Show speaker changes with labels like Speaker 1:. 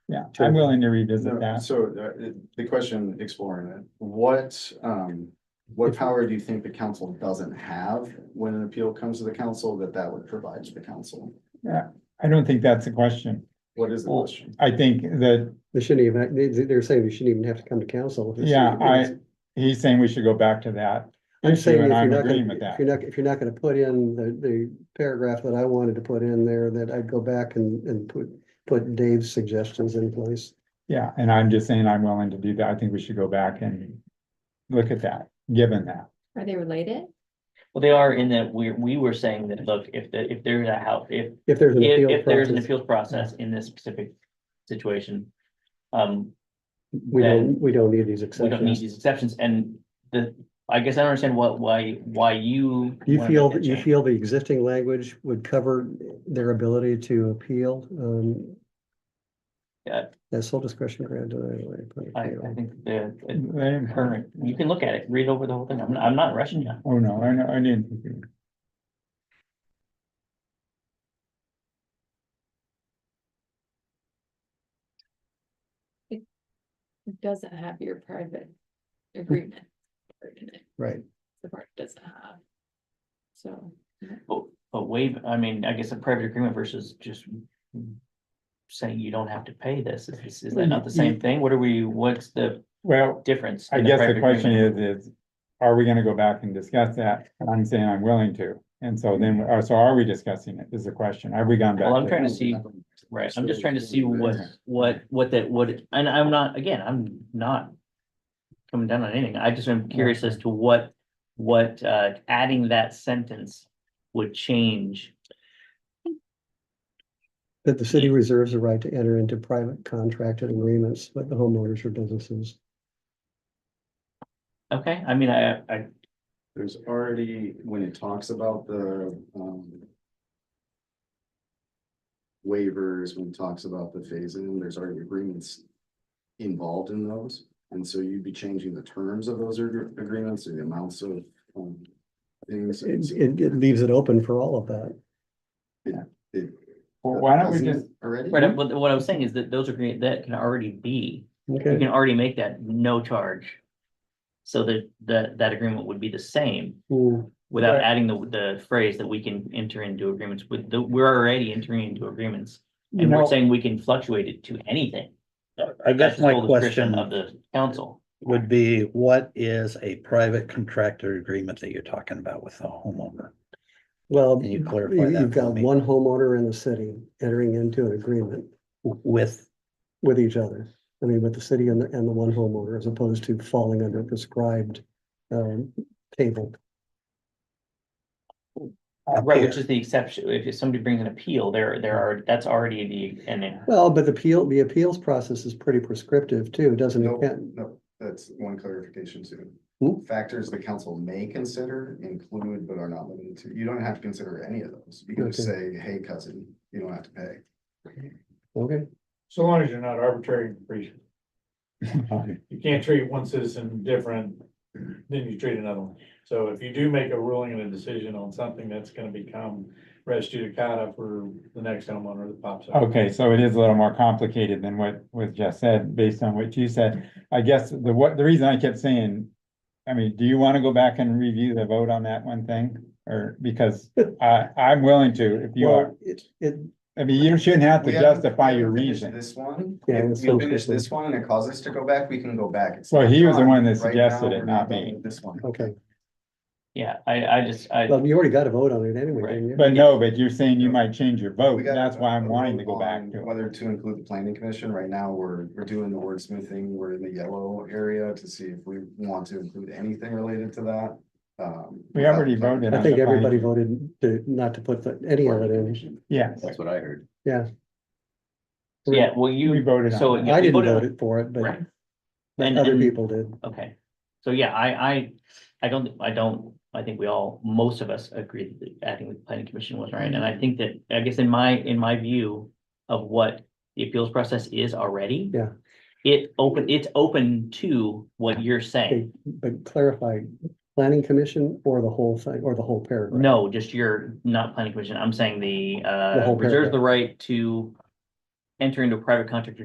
Speaker 1: Yeah, I'm willing to revisit
Speaker 2: No,
Speaker 1: that.
Speaker 2: So uh, the question exploring it, what um, what power do you think the council doesn't have when an appeal comes to the council that that would provide to the council?
Speaker 1: I don't think that's a question.
Speaker 2: What is the
Speaker 3: Well,
Speaker 2: question?
Speaker 1: I think that
Speaker 3: They shouldn't even, they, they- they're saying we shouldn't even have to come to council. if it's-
Speaker 1: Yeah, I- he's saying we should go back to that.
Speaker 3: I'm saying if
Speaker 1: and
Speaker 3: you're
Speaker 1: I'm
Speaker 3: not,
Speaker 1: agreeing with
Speaker 3: gonna-
Speaker 1: that.
Speaker 3: if you're not, if you're not gonna put in the, the paragraph that I wanted to put in there, that I'd go back and, and put, put Dave's suggestions in place.
Speaker 1: Yeah, and I'm just saying I'm willing to do that. I think we should go back and look at that, given that.
Speaker 4: Are they related?
Speaker 5: Well, they are in that we, we were saying that, look, if the, if there's a how, if,
Speaker 3: If there's an
Speaker 5: if,
Speaker 3: appeal
Speaker 5: if there's an
Speaker 3: process,
Speaker 5: appeals process in this specific situation. Um,
Speaker 3: we don't,
Speaker 5: then
Speaker 3: we don't need these
Speaker 5: we don't need
Speaker 3: exceptions.
Speaker 5: these exceptions and the, I guess I don't understand what, why, why you.
Speaker 3: Do you
Speaker 5: wanna
Speaker 3: feel,
Speaker 5: make that
Speaker 3: you
Speaker 5: change.
Speaker 3: feel the existing language would cover their ability to appeal? Um,
Speaker 5: Yeah.
Speaker 3: That's sole discretion granted. I- I-
Speaker 5: I, I think the, the
Speaker 1: They-
Speaker 5: current, you can look at it, read over the whole thing. I'm, I'm not rushing you.
Speaker 1: Oh, no, I know, I didn't. think it-
Speaker 4: It doesn't have your private agreement. part in it.
Speaker 3: Right.
Speaker 4: The part it doesn't have. So,
Speaker 5: But, but waive, I mean, I guess a private agreement versus just. Saying you don't have to pay this. Is, is that not the same thing? What are we, what's the
Speaker 1: Well,
Speaker 5: difference?
Speaker 1: I
Speaker 5: in a
Speaker 1: guess the
Speaker 5: private
Speaker 1: question
Speaker 5: agreement?
Speaker 1: is, is are we gonna go back and discuss that? And I'm saying I'm willing to. And so then, uh, so are we discussing it is the question. Have we gone back?
Speaker 5: Well, I'm
Speaker 1: to-
Speaker 5: trying to see, right, I'm just trying to see what, what, what that, what, and I'm not, again, I'm not. Coming down on anything, I just am curious as to what, what, uh, adding that sentence would change.
Speaker 3: That the city reserves the right to enter into private contracted agreements with the homeowners or businesses.
Speaker 5: Okay, I mean, I, I,
Speaker 2: There's already, when it talks about the um. Waivers, when it talks about the phase in, there's already agreements. Involved in those, and so you'd be changing the terms of those ag- agreements or the amounts of um. Things.
Speaker 3: It, it, it leaves it open for all of that.
Speaker 2: It-
Speaker 1: Well, Why don't we
Speaker 2: Doesn't it
Speaker 1: just,
Speaker 2: Already?
Speaker 5: right, what, what I was saying is that those are, that can already be, you
Speaker 3: Okay.
Speaker 5: can already make that no charge. So that, that, that agreement would be the same.
Speaker 3: Hmm.
Speaker 5: Without
Speaker 1: Right.
Speaker 5: adding the, the phrase that we can enter into agreements with, the, we're already entering into agreements.
Speaker 1: you
Speaker 5: And we're
Speaker 1: know,
Speaker 5: saying we can fluctuate it to anything.
Speaker 6: I
Speaker 5: That's
Speaker 6: guess
Speaker 5: the
Speaker 6: my
Speaker 5: sole discretion Of
Speaker 6: question
Speaker 5: the council.
Speaker 6: would be, what is a private contractor agreement that you're talking about with the homeowner?
Speaker 3: Well,
Speaker 6: Can you
Speaker 3: you-
Speaker 6: clarify that
Speaker 3: you've
Speaker 6: for
Speaker 3: got
Speaker 6: me?
Speaker 3: one homeowner in the city entering into an agreement
Speaker 6: W- With,
Speaker 3: with each other. I mean, with the city and the, and the one homeowner as opposed to falling under a prescribed um, table.
Speaker 5: Right, which is the exception. If somebody brings an appeal, there, there are, that's already the, and then,
Speaker 3: Well, but the appeal, the appeals process is pretty prescriptive too, doesn't
Speaker 2: No,
Speaker 3: it? Can't-
Speaker 2: no, that's one clarification too.
Speaker 3: Hmm?
Speaker 2: Factors the council may consider include but are not limited to, you don't have to consider any of those. You can just say, hey cousin, you don't have to pay.
Speaker 3: Okay,
Speaker 7: So long as you're not arbitrary and capricious. You can't treat one citizen different than you treat another one. So if you do make a ruling and a decision on something that's gonna become res judicata for the next homeowner that pops up.
Speaker 1: Okay, so it is a little more complicated than what was just said, based on what you said. I guess the what, the reason I kept saying, I mean, do you want to go back and review the vote on that one thing? Or because I, I'm willing to, if you are,
Speaker 3: well, it, it,
Speaker 1: I mean, you shouldn't have to
Speaker 2: We haven't-
Speaker 1: justify
Speaker 2: we
Speaker 1: your
Speaker 2: haven't finished
Speaker 1: reason.
Speaker 2: This one,
Speaker 3: Yeah,
Speaker 2: if
Speaker 3: let's
Speaker 2: we
Speaker 3: go
Speaker 2: finish
Speaker 3: quickly.
Speaker 2: this one and it causes us to go back, we can go back. It's
Speaker 1: Well,
Speaker 2: not
Speaker 1: he was the
Speaker 2: done.
Speaker 1: one that
Speaker 2: Right
Speaker 1: suggested
Speaker 2: now,
Speaker 1: it,
Speaker 2: we're
Speaker 1: not
Speaker 2: done
Speaker 1: me.
Speaker 2: with This one.
Speaker 3: okay.
Speaker 5: yeah, I, I just, I,
Speaker 3: Well, you already got a vote on it anyway,
Speaker 5: Right.
Speaker 3: didn't you?
Speaker 1: But no, but you're saying you might change your vote.
Speaker 2: We got
Speaker 1: That's why I'm
Speaker 2: a
Speaker 1: wanting
Speaker 2: vote
Speaker 1: to go back
Speaker 2: on
Speaker 1: to it.
Speaker 2: Whether to include the planning commission, right now, we're, we're doing the wordsmithing, we're in the yellow area to see if we want to include anything related to that. Um,
Speaker 1: We already
Speaker 2: without-
Speaker 1: voted
Speaker 3: I
Speaker 1: on
Speaker 3: think
Speaker 1: the
Speaker 3: everybody
Speaker 1: finding.
Speaker 3: voted to, not to put the- any of it in.
Speaker 1: Yes,
Speaker 2: what I heard.
Speaker 5: yeah, well,
Speaker 1: we
Speaker 5: you,
Speaker 1: voted
Speaker 5: so.
Speaker 1: on it.
Speaker 5: yeah,
Speaker 3: I
Speaker 5: we
Speaker 3: didn't
Speaker 5: voted on-
Speaker 3: vote it for it, but
Speaker 5: Right,
Speaker 3: but
Speaker 5: And-
Speaker 3: other
Speaker 5: and-
Speaker 3: people did.
Speaker 5: okay. So, yeah, I, I, I don't, I don't, I think we all, most of us agree that acting with the planning commission was right. And I think that, I guess in my, in my view of what the appeals process is already.
Speaker 3: Yeah.
Speaker 5: It open, it's open to what you're saying.
Speaker 3: Okay, But clarify, planning commission or the whole thing, or the whole paragraph?
Speaker 5: No, just your, not planning commission, I'm saying the,
Speaker 3: The
Speaker 5: uh,
Speaker 3: whole
Speaker 5: reserves the
Speaker 3: paragraph.
Speaker 5: right to enter into a private contract or